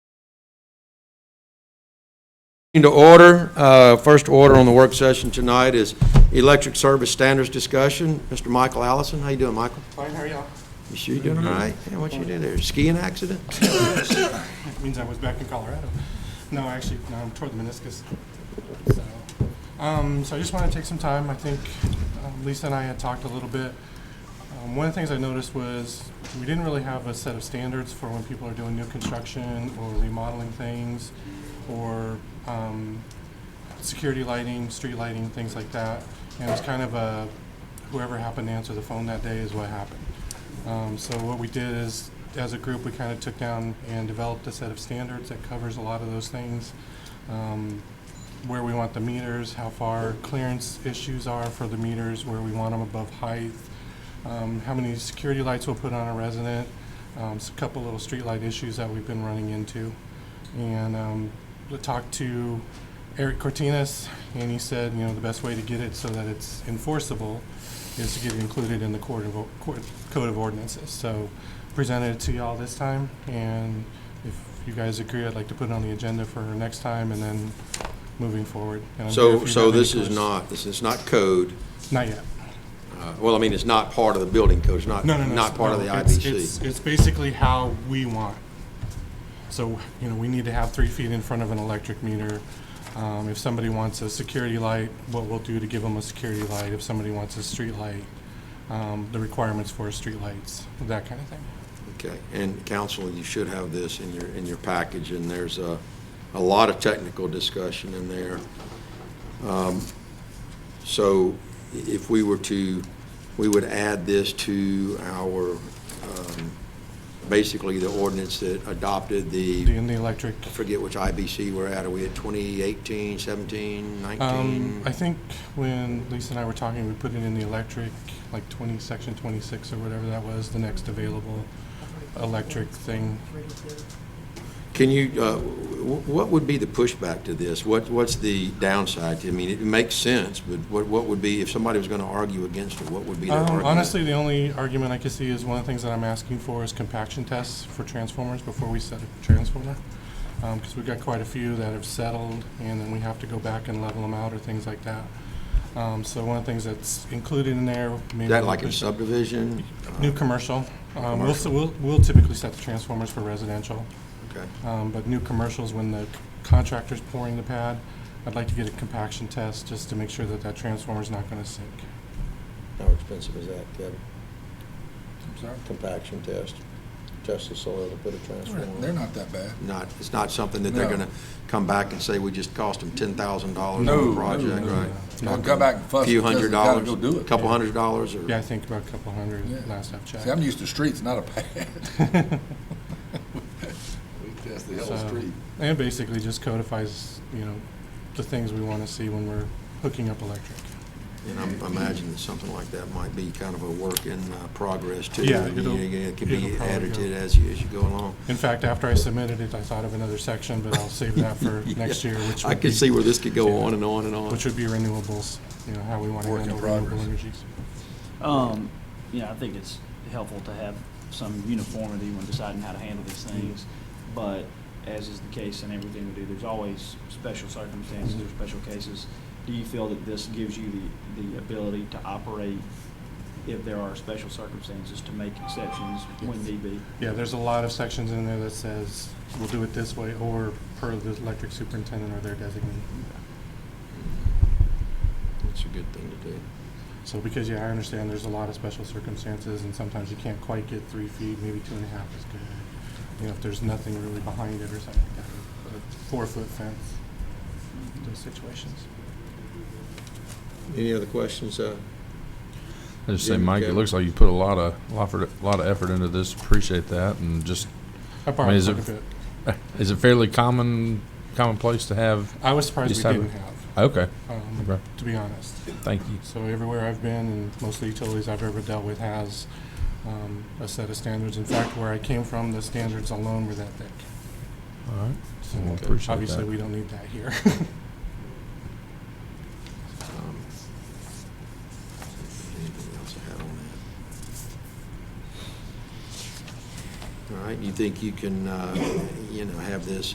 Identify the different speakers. Speaker 1: Into order, uh, first order on the work session tonight is electric service standards discussion. Mr. Michael Allison, how you doing, Michael?
Speaker 2: Fine, how are y'all?
Speaker 1: You sure you doing all right? Yeah, what you do there, skiing accident?
Speaker 2: It means I was back in Colorado. No, actually, no, I'm toward the meniscus. So, um, so I just want to take some time. I think um, Lisa and I had talked a little bit. Um, one of the things I noticed was we didn't really have a set of standards for when people are doing new construction or remodeling things or um, security lighting, street lighting, things like that. And it was kind of a whoever happened to answer the phone that day is what happened. Um, so what we did is, as a group, we kind of took down and developed a set of standards that covers a lot of those things. Um, where we want the meters, how far clearance issues are for the meters, where we want them above height, um, how many security lights we'll put on a resident, um, s- a couple little streetlight issues that we've been running into. And um, we talked to Eric Cortinas, and he said, you know, the best way to get it so that it's enforceable is to get it included in the court of, o- court, code of ordinances. So presented it to y'all this time, and if you guys agree, I'd like to put it on the agenda for next time and then moving forward. And I'm here if
Speaker 1: So,
Speaker 2: you
Speaker 1: so
Speaker 2: have any
Speaker 1: this is
Speaker 2: questions.
Speaker 1: not, this is not code.
Speaker 2: Not yet.
Speaker 1: Uh, Well, I mean, it's not part of the building code, it's not,
Speaker 2: No, no, no.
Speaker 1: not part of the
Speaker 2: no, it's-
Speaker 1: IBC.
Speaker 2: It's, it's basically how we want. So, you know, we need to have three feet in front of an electric meter. Um, if somebody wants a security light, what we'll do to give them a security light. If somebody wants a street light, um, the requirements for street lights, that kind of thing.
Speaker 1: Okay, and council, you should have this in your, in your package, and there's a, a lot of technical discussion in there. Um, So i- if we were to, we would add this to our, um, basically the ordinance that adopted the,
Speaker 2: In the electric,
Speaker 1: I forget which IBC we're at, are we at 2018, 17, 19?
Speaker 2: um, I think when Lisa and I were talking, we put it in the electric, like twenty, section twenty-six or whatever that was, the next available electric thing.
Speaker 1: Can you, uh, wh- what would be the pushback to this? What, what's the downside? I mean, it makes sense, but what, what would be, if somebody was going to argue against it, what would be their
Speaker 2: Um,
Speaker 1: argument?
Speaker 2: Honestly, the only argument I could see is one of the things that I'm asking for is compaction tests for transformers before we set a transformer. Because we've got quite a few that have settled, and then we have to go back and level them out or things like that. Um, So one of the things that's included in there, maybe.
Speaker 1: Is that like a
Speaker 2: is
Speaker 1: subdivision?
Speaker 2: New commercial. Um, We'll s-
Speaker 1: Commercial.
Speaker 2: We'll we'll typically set the transformers for residential.
Speaker 1: Okay.
Speaker 2: Um, But new commercials, when the contractor's pouring the pad, I'd like to get a compaction test just to make sure that that transformer's not going to sink.
Speaker 1: How expensive is that, Kevin?
Speaker 2: I'm sorry.
Speaker 1: Compaction test, test the soil to put a transformer?
Speaker 3: They're not that bad.
Speaker 1: Not, it's not something that they're
Speaker 3: No.
Speaker 1: going to come back and say, we just cost them $10,000 on
Speaker 3: No,
Speaker 1: the
Speaker 3: no,
Speaker 1: project,
Speaker 3: no,
Speaker 1: right?
Speaker 2: no.
Speaker 1: It's
Speaker 3: I'll
Speaker 1: not
Speaker 3: come back and
Speaker 1: a
Speaker 3: fuss
Speaker 1: Few
Speaker 3: because
Speaker 1: hundred
Speaker 3: they gotta
Speaker 1: dollars,
Speaker 3: go do it.
Speaker 1: couple hundred dollars or?
Speaker 2: Yeah, I think about a couple hundred
Speaker 3: Yeah.
Speaker 2: last I've checked.
Speaker 3: See, I'm used to streets, not a pad. We test the whole
Speaker 2: So-
Speaker 3: street.
Speaker 2: And basically just codifies, you know, the things we want to see when we're hooking up electric.
Speaker 1: And I'm- I imagine that something like that might be kind of a work in uh, progress too.
Speaker 2: Yeah,
Speaker 1: I mean,
Speaker 2: it'll-
Speaker 1: It it can be
Speaker 2: it'll probably
Speaker 1: added to
Speaker 2: go.
Speaker 1: it as you, as you go along.
Speaker 2: In fact, after I submitted it, I thought of another section, but I'll save that for next year, which
Speaker 1: I
Speaker 2: would
Speaker 1: can
Speaker 2: be-
Speaker 1: see where this could go on and on and on.
Speaker 2: Which would be renewables, you know, how we want to
Speaker 3: Work in
Speaker 2: handle renewable
Speaker 3: progress.
Speaker 2: energies.
Speaker 4: Um, yeah, I think it's helpful to have some uniformity when deciding how to handle these things. But as is the case in everything we do, there's always special circumstances or special cases. Do you feel that this gives you the, the ability to operate if there are special circumstances to make exceptions when need be?
Speaker 2: Yeah, there's a lot of sections in there that says, we'll do it this way, or per the electric superintendent or their designee.
Speaker 1: It's a good thing to do.
Speaker 2: So because, yeah, I understand there's a lot of special circumstances and sometimes you can't quite get three feet, maybe two and a half is good. You know, if there's nothing really behind it or something like that, a four-foot fence, those situations.
Speaker 1: Any other questions? uh,
Speaker 5: I just say,
Speaker 1: Jim,
Speaker 5: Mike, it
Speaker 1: Kevin?
Speaker 5: looks like you put a lot of, lot of- lot of effort into this. Appreciate that. And just,
Speaker 2: I
Speaker 5: I mean,
Speaker 2: borrowed
Speaker 5: is
Speaker 2: quite a
Speaker 5: it-
Speaker 2: bit.
Speaker 5: is it fairly common, commonplace to have?
Speaker 2: I was surprised
Speaker 5: Just
Speaker 2: we
Speaker 5: have
Speaker 2: didn't
Speaker 5: it-
Speaker 2: have,
Speaker 5: Okay,
Speaker 2: um,
Speaker 5: Okay.
Speaker 2: to be honest.
Speaker 5: thank you.
Speaker 2: So everywhere I've been, and most of the utilities I've ever dealt with has um, a set of standards. In fact, where I came from, the standards alone were that thick.
Speaker 5: All right.
Speaker 2: So
Speaker 5: Well, appreciate that.
Speaker 2: Obviously, we don't need that here.
Speaker 1: um, Anything else I had on that? All right, you think you can, uh, you know, have this